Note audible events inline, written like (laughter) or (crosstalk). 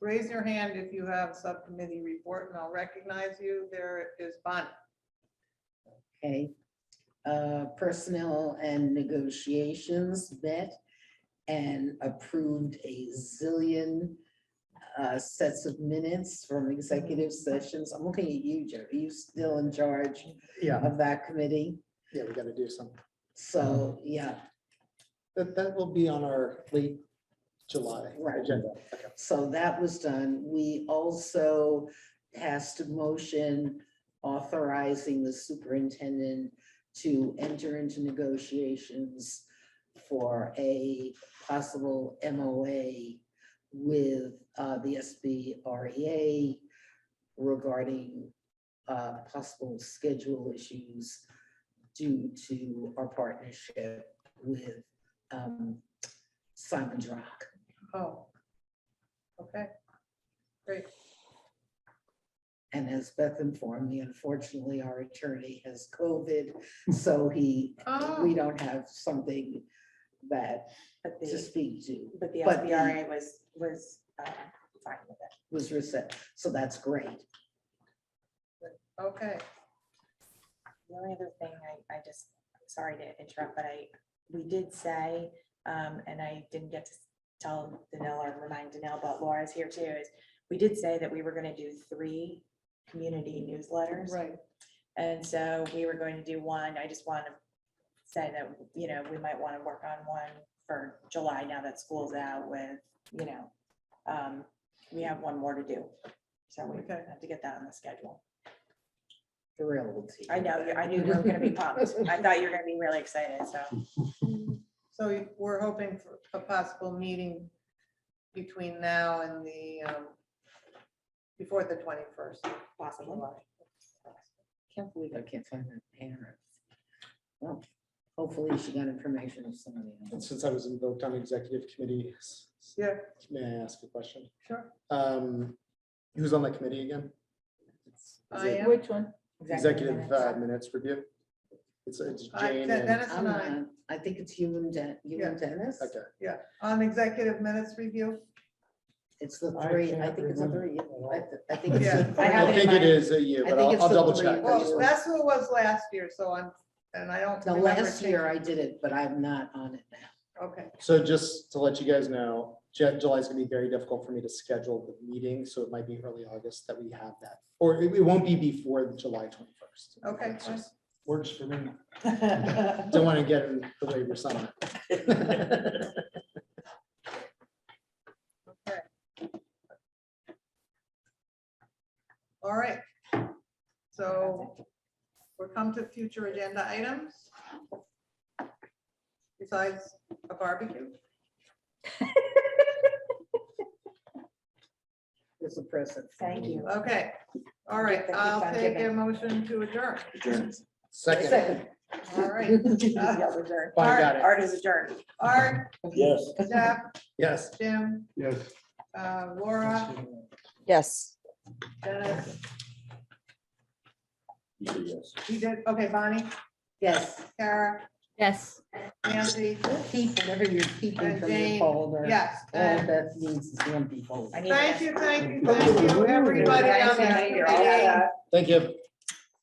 raise your hand if you have subcommittee report, and I'll recognize you. There is Bonnie. Okay, Uh, personnel and negotiations met and approved a zillion uh, sets of minutes from executive sessions. I'm looking at you, Joe. Are you still in charge Yeah, of that committee? yeah, we gotta do some, So, yeah, that, that will be on our late July Right. agenda. Okay. so that was done. We also passed a motion authorizing the superintendent to enter into negotiations for a possible MOA with uh, the SBREA E regarding uh, possible schedule issues due to our partnership with um, Simon's Rock. Oh. Okay. And as Beth informed me, unfortunately, our attorney has COVID, so he, we Oh, don't have something that But to the, speak to but the but the- SBRA was, was uh, fine with it. was reset. So that's great. Oh, okay. The only other thing, I, I just, sorry to interrupt, but I, we did say, um, and I didn't get to tell Danell or remind Danell, but Laura's here too, is we did say that we were gonna do three community newsletters. Right. And so we were going to do one, I just want to say that, you know, we might want to work on one for July now that school's out with, you know, um, we have one more to do. So we Okay. have to get that on the schedule. Thrilled. I know, you- I knew you were gonna be pumped. I thought you were gonna be really excited, so. So we're hoping for a possible meeting between now and the, um, before the twenty-first. Possibly. Can't believe I can't find her parents. Well, hopefully she got information of somebody And else. since I was invoked on executive committee, s- s- Yeah, may I ask a question? sure. Um, who's on that committee again? Is I it am. Which one? Executive uh, minutes. minutes review? It's, it's I- Jane Den- and, Dennis I'm and I, not- I think it's you and Den, you and Dennis. okay, yeah, on executive minutes review. It's the I three, I can't think it's the remember three. at all. I th- I think it's. Yeah. the I three. have I it in think my- it is a year, I but think I'll, it's I'll the double three. check. I just Well, wanna- that's who it was last year, so I'm, and I don't. The remember last year I changing- did it, but I'm not on it now. Okay, So just to let you guys know, Ju- July is gonna be very difficult for me to schedule the meeting, so it might be early August that we have that. Or it it won't be before the July twenty-first. Okay, fine. Works for me. Don't want to get in the way of your summer. all right. So we're come to future agenda items. Besides a barbecue. It's a present. Thank you. (laughs) Okay, all right, Keep I'll on take a giving. motion to adjourn. Second, All right, Yelled adjourn. Bonnie got it. Art is adjourned. Art, Yes. Jeff, Yes. Jim, Yes. uh, Laura, Yes. Dennis, Yes. you did, okay, Bonnie, Yes. Kara, Yes. Nancy, Keep whatever you're keeping and from your Jane. folder. Yes, All and that means is one folder. I need thank to- you, thank you, thank you, everybody Guys, out I there. know you're all set. Thank you.